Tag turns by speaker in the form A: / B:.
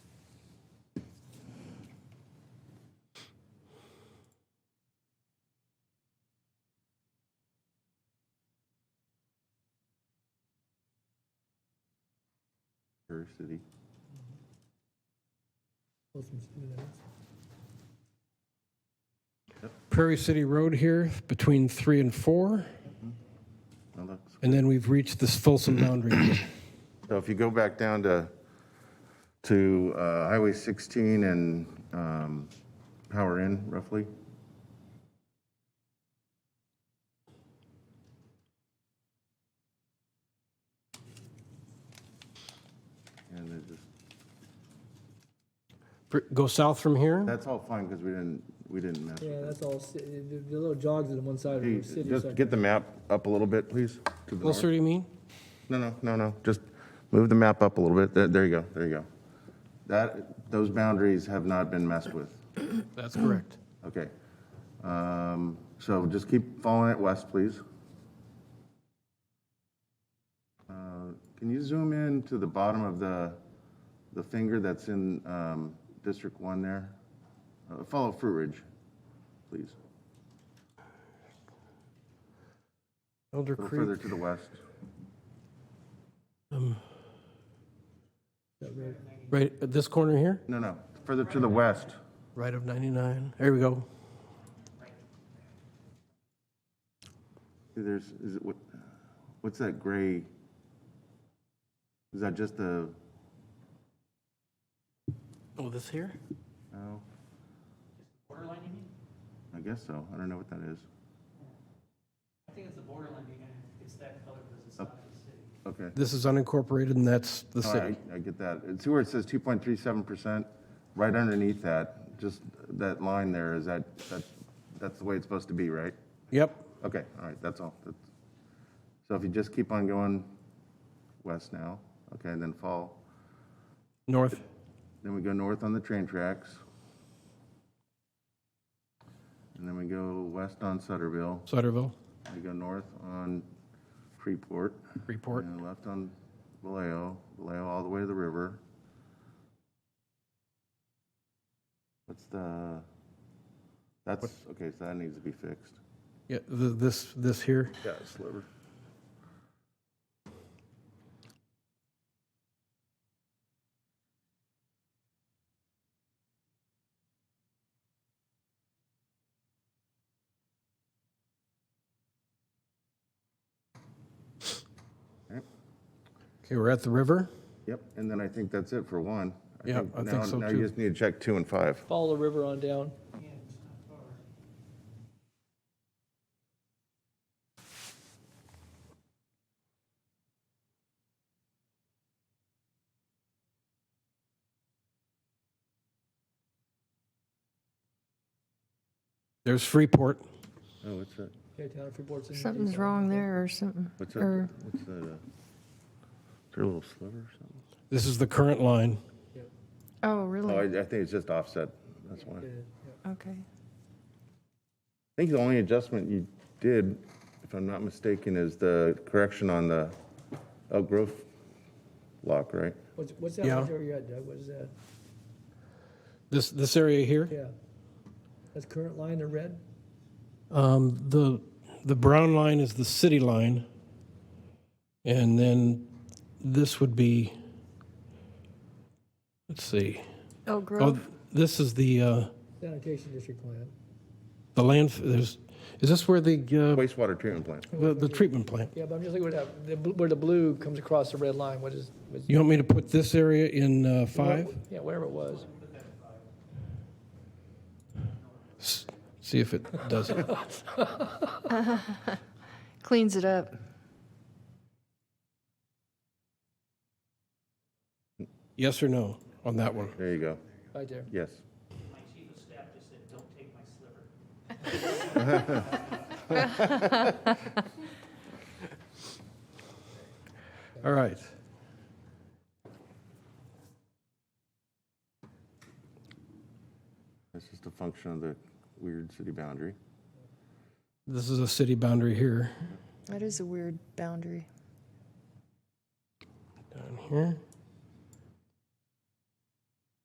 A: per city.
B: Prairie City Road here between three and four,
A: That looks-
B: and then we've reached this Folsom boundary.
A: So if you go back down to, to uh, Highway 16 and um, Power Inn roughly, and they're just
B: Pr- Go south from here?
A: That's all fine, because we didn't, we didn't mess
C: Yeah,
A: with
C: that's all, ci- the the little jogs on one side of the
A: it.
C: city.
A: Just get the map up a little bit, please. to the
B: Closer,
A: north.
B: do you mean?
A: No, no, no, no, just move the map up a little bit. There, there you go, there you go. That, those boundaries have not been messed with.
B: That's correct.
A: Okay. Um, So just keep following it west, please. Uh, Can you zoom in to the bottom of the, the finger that's in um, District 1 there? Uh, Follow Fruit Ridge, please.
B: Elder
A: A little further
B: Creek,
A: to the west.
B: right at this corner here,
A: No, no, further to the west.
B: right of 99. There we go.
A: See, There's, is it, what, what's that gray? Is that just the,
B: Oh, this here?
A: no? Borderline, you mean? I guess so. I don't know what that is.
D: I think it's the borderline, you're gonna, it's that color because it's not the city.
A: Okay.
B: This is unincorporated, and that's the
A: All
B: city.
A: right, I get that. See where it says 2.37%? Right underneath that, just that line there, is that, that, that's the way it's supposed to be, right?
B: Yep,
A: Okay, all right, that's all. That's- So if you just keep on going west now, okay, and then fall,
B: north.
A: then we go north on the train tracks. And then we go west on Sutterville,
B: Sutterville,
A: we go north on Freeport.
B: Freeport.
A: And left on Vallejo, Vallejo all the way to the river. What's the, that's, okay, so that needs to be fixed.
B: Yeah, th- this, this here.
A: Yeah, sliver.
B: Okay, we're at the river.
A: Yep, and then I think that's it for one.
B: Yeah, I think
A: now-
B: so
A: Now
B: too.
A: you just need to check two and five.
C: Follow the river on down.
B: There's Freeport.
A: Oh, what's that?
C: Yeah, town of Freeport's in-
E: Something's wrong there or something.
A: What's
E: or-
A: that? What's that? uh, Is there a little sliver or something?
B: This is the current line.
E: Oh,
A: Oh, I
E: really?
A: I think it's just offset, that's why.
C: Yeah, yeah.
E: Okay.
A: I think the only adjustment you did, if I'm not mistaken, is the correction on the Elk Grove lock, right?
C: What's, what's that
B: Yeah.
C: one area you're at, Doug? What is that?
B: This, this area here.
C: Yeah. That's current line in red?
B: Um, the, the brown line is the city line. And then this would be, let's see. Oh,
E: Elk Grove?
B: this is the, uh,
C: Sanitation district plan.
B: the land, there's, is this where the,
A: Wastewater treatment plant.
B: uh, the, the treatment plant?
C: Yeah, but I'm just looking at that, the bl- where the blue comes across the red line, what is? what's-
B: You want me to put this area in, uh, five?
C: Yeah, wherever it was.
B: S- See if it does it.
E: Cleans it up.
B: Yes or no on that one?
A: There you go.
C: Right there.
A: Yes.
D: My chief of staff just said, don't take my sliver.
B: All right.
A: That's just a function of the weird city boundary.
B: This is a city boundary here,
E: That is a weird boundary.
B: down here.